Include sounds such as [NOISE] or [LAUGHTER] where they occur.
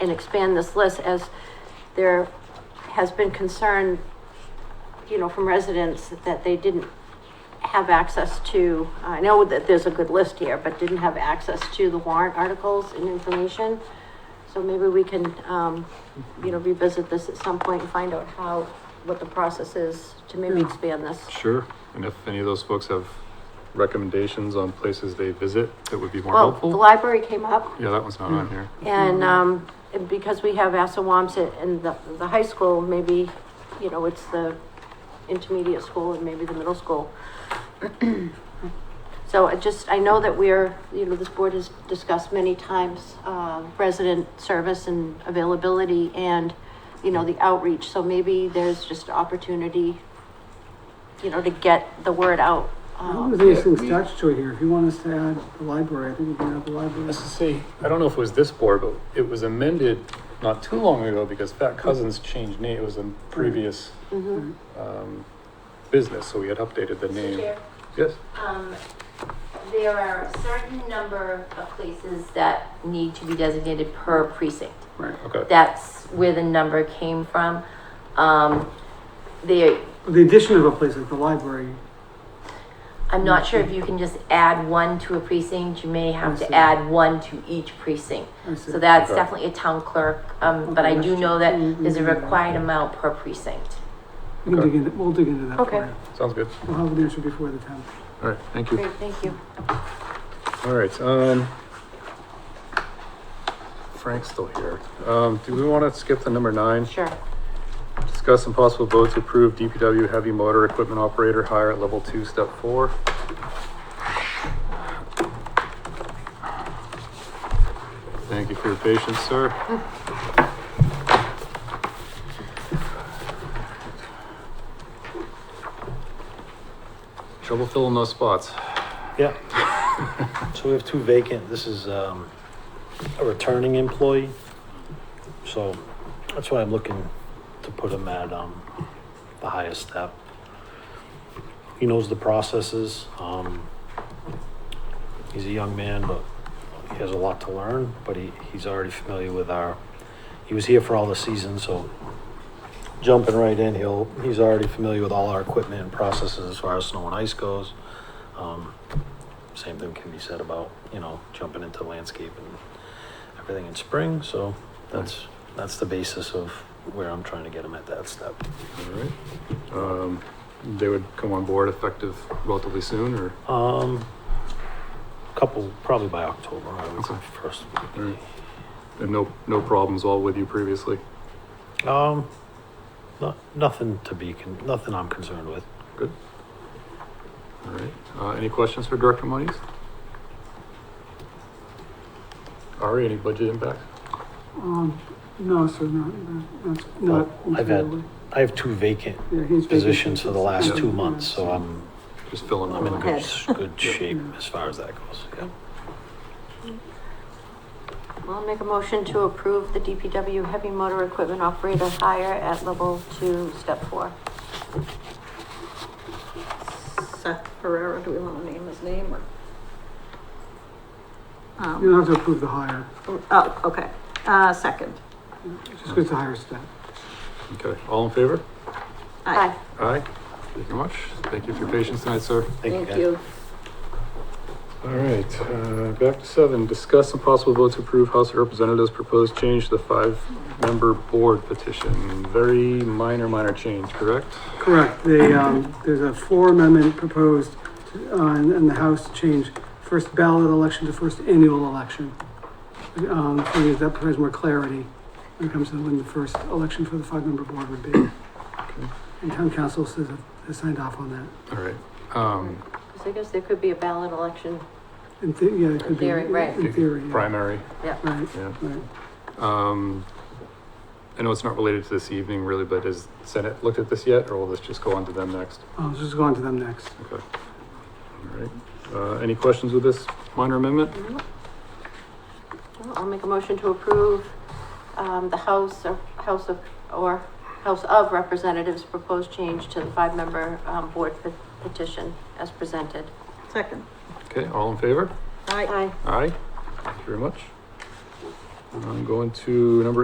and expand this list as there has been concern, you know, from residents that they didn't have access to, I know that there's a good list here, but didn't have access to the warrant articles and information. So maybe we can, um, you know, revisit this at some point and find out how, what the process is to maybe expand this. Sure, and if any of those folks have recommendations on places they visit that would be more Well, the helpful? library came up Yeah, that one's not on here. and, um, and because we have Assawamsett and the, the high school, maybe, you know, it's the intermediate school and maybe the middle school. [CLEARS THROAT] So I just, I know that we're, you know, this board has discussed many times, uh, resident service and availability and, you know, the outreach, so maybe there's just opportunity, you know, to get the word out. I um, don't think there's anything we- statutory here. If you want us to add the library, I think we can add the library. Hmm. Let's just see, I don't know if it was this board, but it was amended not too long ago because Fat Cousins changed name, it was a previous, mhm. um, business, so we had updated the name. Chair, Yes, um, there are a certain number of places that need to be designated per precinct. Right. okay, That's where the number came from. Um, there, The addition of a place like the library, I'm not sure if you can just add one to a precinct, you may have I see. to add one to each precinct. I see. So that's Okay. definitely a town clerk, um, but I do know that there's a required amount per precinct. We'll dig Okay. into, we'll dig into that for Okay. you. sounds good. We'll have an answer before the tenth. All right, thank you. Great, thank you. All right, um, Frank's still here. Um, do we want to skip to number nine? Sure. Discuss some possible vote to approve DPW heavy motor equipment operator hire at level two, step four. Thank you for your patience, sir. Trouble filling those spots. Yeah. [LAUGHS] So we have two vacant, this is um, a returning employee. So that's why I'm looking to put him at um, the highest step. He knows the processes. um, He's a young man, but he has a lot to learn, but he, he's already familiar with our, he was here for all the seasons, so jumping right in, he'll, he's already familiar with all our equipment and processes as far as snow and ice goes. Um, same thing can be said about, you know, jumping into landscape and everything in spring, so that's, that's the basis of where I'm trying to get him at that step. All right. Um, They would come on board effective relatively soon, or? Um, couple, probably by October, I would say Okay. first. All right. And no, no problems all with you previously? Um, no, nothing to be, con- nothing I'm concerned with. All right. Uh, any questions for Director Moniz? Ari, any budget impact? Um, no, sir, not, that's Well, not. I've had entirely. I have two vacant Yeah, he's positions for the last two Yeah. months, so I'm, Just filling I'm in them Okay. in. good, good shape as far as that goes, yeah. I'll make a motion to approve the DPW heavy motor equipment operator hire at level two, step four. Seth Pereira, do we want to name his name or? You Um, don't have to approve the hire, oh, okay, uh, second. just because the hire step. Okay, all in favor? Aye. Aye. Thank you very much. Thank you for your patience tonight, sir. guys. Thank you. All right, uh, back to seven, discuss some possible votes to approve House of Representatives proposed change to the five-member board petition. Very minor, minor change, correct? Correct, the, um, there's a floor amendment proposed, to- uh, in, in the House to change first ballot election to first annual election. Um, the thing is, that provides more clarity when it comes to when the first election for the five-member board would be. And town council says, has signed off on that. All right, um, Because I guess there could be a ballot election. In the, yeah, it could be. Theory, right. In theory, yeah. primary, Right, yeah. right. Um, I know it's not related to this evening really, but has Senate looked at this yet, or will this just go on to them next? I'll just go on to them next. Okay. All right. Uh, any questions with this minor amendment? Mm-hmm. I'll make a motion to approve, um, the House or House of, or House of Representatives proposed change to the five-member, um, board pe- petition as presented. Second. Okay, all in favor? Aye. Aye. Aye. Thank you very much. I'm going to number